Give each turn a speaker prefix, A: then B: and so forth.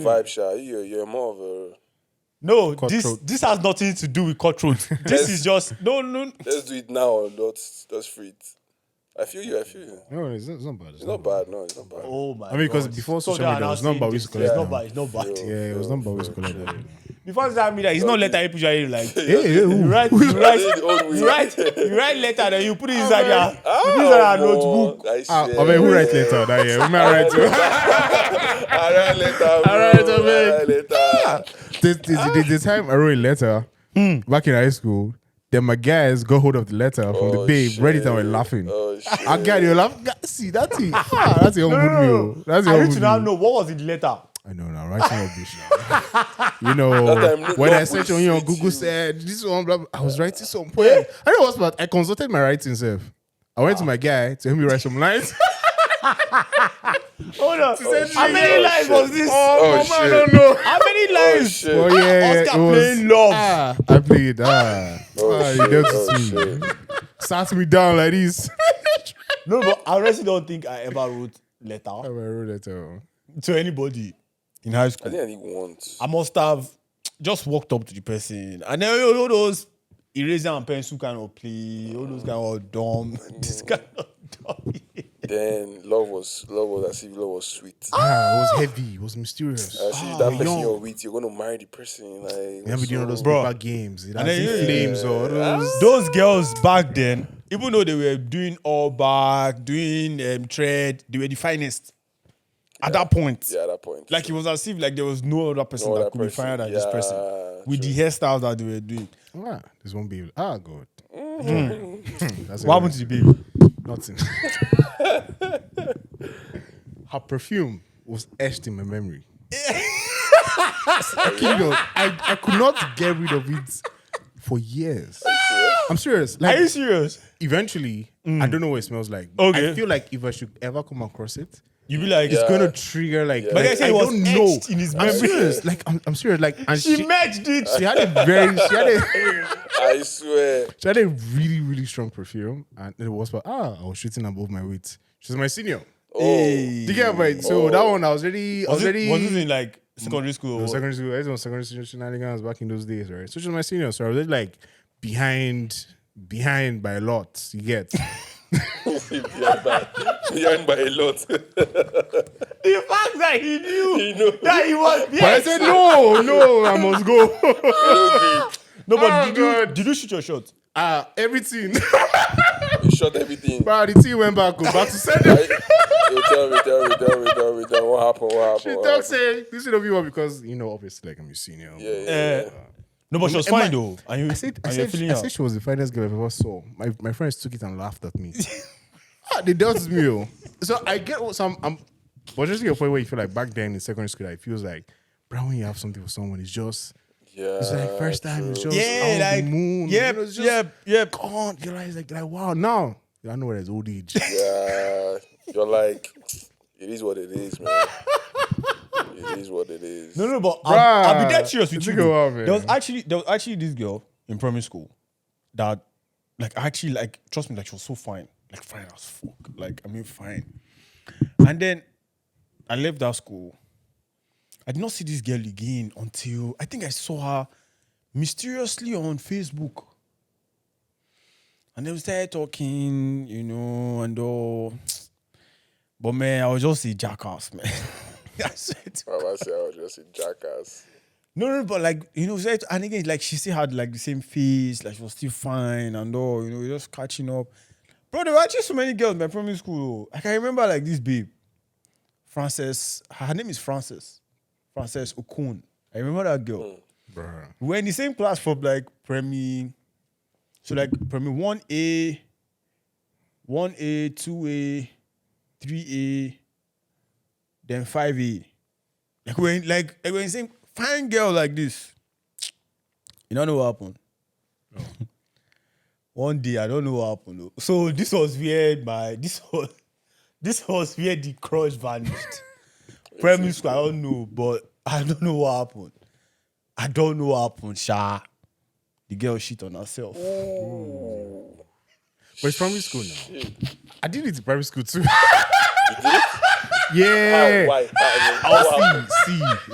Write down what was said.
A: Hmm.
B: Vibe shot. You're, you're more of a.
C: No, this
A: Cutthroat.
C: this has nothing to do with cutthroat. this is just no, no.
B: Let's do it now and let's, let's free it. I feel you. I feel you.
A: No, it's not, it's not bad. It's,
B: It's not bad. No, it's not bad.
C: Oh my!
A: I mean, 'cause
C: God.
A: before
C: So
A: social
C: they are
A: media,
C: now
A: it was number
C: saying
A: we used to
C: this. It's
A: collect
C: number. It's number.
A: Yeah, it was not bad. We used to collect that.
C: Before social media, it's not letter. People usually like
A: Hey, hey,
C: you
A: ooh.
C: write, you
B: I
C: write,
B: did old weed.
C: you write, you write letter, then you put it inside your, you
B: Ah,
C: put it inside your
B: omo,
C: notebook.
B: I
A: Ah,
B: swear.
A: I mean, who write later that year? Who may I write to?
B: I write later. Bro. I
A: write to me. Ah!
B: write later.
A: the, the, the, the time I wrote a letter back in high school, then my guys got hold of the letter from the
B: Oh,
A: babe, read it and were
B: shit.
A: laughing. Ah,
B: Oh shit.
A: I got you laugh. Ga- See, that's it. Ah, that's your own good meal. That's your
C: I
A: own
C: need to
A: good
C: now
A: meal.
C: know what was in the letter.
A: I know now, right? Rubbish. you
B: That time,
A: know,
B: look
A: when I
B: up
A: searched
B: will
A: on you on
B: suit
A: Google,
B: you.
A: said this one, blah, blah, I was writing some poem. I know what's bad. I consulted my writing self. I went to my guy to help me write some lines.
C: Hold on.
B: said
C: How
B: she-
C: many
B: oh,
C: lines
B: shit.
C: was this?
B: Oh,
A: Mama, I
B: shit.
A: don't know.
C: How many
B: Oh
C: lines?
B: shit.
A: Oh yeah, yeah,
C: Oscar
A: it was-
C: playing love.
A: Ah, I played. Ah,
B: Oh,
A: ah
B: shit.
A: you dealt
B: Oh,
A: with me. Sat me down like this.
C: No, but I honestly don't think I ever wrote
A: I
C: letter
A: wrote it down.
C: to anybody in high
B: I
C: school.
B: think I need one.
C: I must have just walked up to the person. And then oh, all those eraser and pencil kind of play, all those kind of dumb, this kind of dumb.
B: Then love was love was as if love was sweet.
A: Ah, it
C: Oh.
A: was heavy. It was mysterious.
B: As if that person
A: young.
B: you're with, you're gonna marry the person. Like
A: Then we doing all
B: so-
A: those
C: Bro.
A: paper games. It
C: And
A: has
C: then you-
A: the flames or those.
C: those girls back then, even though they were doing all back, doing um, trade, they were the finest at that point.
B: Yeah, at that point.
C: Like it was as if like there was no other person
B: No
C: that
B: other
C: could be
B: person.
C: finer than this person
B: Yeah,
C: with the hairstyles that they were doing.
A: Ah, this one baby. Ah, God.
C: Mm-hmm.
A: Hmm. That's
C: What
A: it.
C: happened to the baby?
A: Nothing. Her perfume was etched in my memory. I, kid you not, I, I could not get rid of it for years. I'm serious.
C: Are you
A: Like,
C: serious?
A: eventually, I don't know what it smells like.
C: Okay. Uh,
A: I feel like if I should ever come across it,
C: You be like,
A: it's
B: Yeah.
A: gonna trigger like.
B: But
A: like,
C: they say
A: I
C: it was
A: don't know.
C: etched in his
A: I'm
C: memory.
A: serious. Like I'm, I'm serious. Like and
C: she,
A: she,
C: merged it.
A: she had a very she had a
B: I swear.
A: she had a really really strong perfume and it was but ah I was shooting above my weight. She's my senior.
B: Oh,
C: Hey.
A: Do you get my so that one I was already I
C: was
A: was
C: it,
A: already
C: was it in like secondary school? or
A: I was
C: what?
A: secondary school. Everyone was secondary school shenanigans back in those days, right? So she was my senior, so I was already, like behind behind by a lot. You get
B: Oh, behind by, behind by a lot.
C: The fact that he knew
B: you know,
C: that he was
A: but I
C: yes.
A: said no no I must go.
C: No, but
A: Oh,
C: did you
A: God.
C: did you shoot your shot?
A: Ah everything.
B: you shot everything.
A: but the team went back oh, back to sender.
B: Right? You tell me, tell me, tell me, tell me, tell me. What happened? What happened?
A: She
B: what
A: talks
B: happened?
A: say this should not be one because you know obviously like I'm your senior.
B: Yeah, yeah,
C: Uh,
B: yeah.
C: no, but she was
A: Am I-
C: fine though. And you,
A: I said, I
C: and you're
A: said,
C: feeling
A: I
C: her.
A: said she was the finest girl I've ever saw. My, my friends took it and laughed at me. ah, they dealt with me. oh. So I get what some. I'm, but just to your point where you feel like back then in secondary school, like, it feels like, bro, when you have something for someone, it's just,
B: yeah.
A: it's like first time, it's
B: true.
A: just,
C: Yeah,
A: out
C: like
A: the moon.
C: yep,
A: you know, it's just
C: yep, yep.
A: gone. You're like, like, like, wow, now I know where there's old age.
B: Yeah. You're like, it is what it is, man. It is what it is.
C: No, no, but I'll, I'll be dead
A: Bruh,
C: serious with
A: it
C: you.
A: took a
C: though.
A: while, man.
C: there was actually there was actually this girl in primary school that like actually like trust me, like she was so fine. Like fine as fuck. Like I mean fine. And then I left that school. I did not see this girl again until I think I saw her mysteriously on Facebook. And then we started talking, you know, and all. But man, I was just a jackass, man. I swear to
B: Baba said I was just a jackass.
C: no, no, but like you know, so- and again, like she still had like the same face, like she was still fine and all. You know, we're just catching up. Bro, there were actually so many girls in my primary school. Like, I can remember like this babe, Frances. Her name is Frances, Frances Okun. I remember that girl.
A: Bro,
C: We were in the same class from like premi, so like premi one A, one A, two A, three A, then five A. Like we we're in, like we we're in the same fine girl like this. You don't know what happened. one day I don't know what happened. Though. So this was where my this was this was where the crush vanished. Primary school, I don't know, but I don't know what happened. I don't know what happened, Sha. The girl shit on herself.
A: but it's primary school now. I did it in primary school too.
B: You did?
A: yeah.
B: Why? How-
A: Oh, see, see,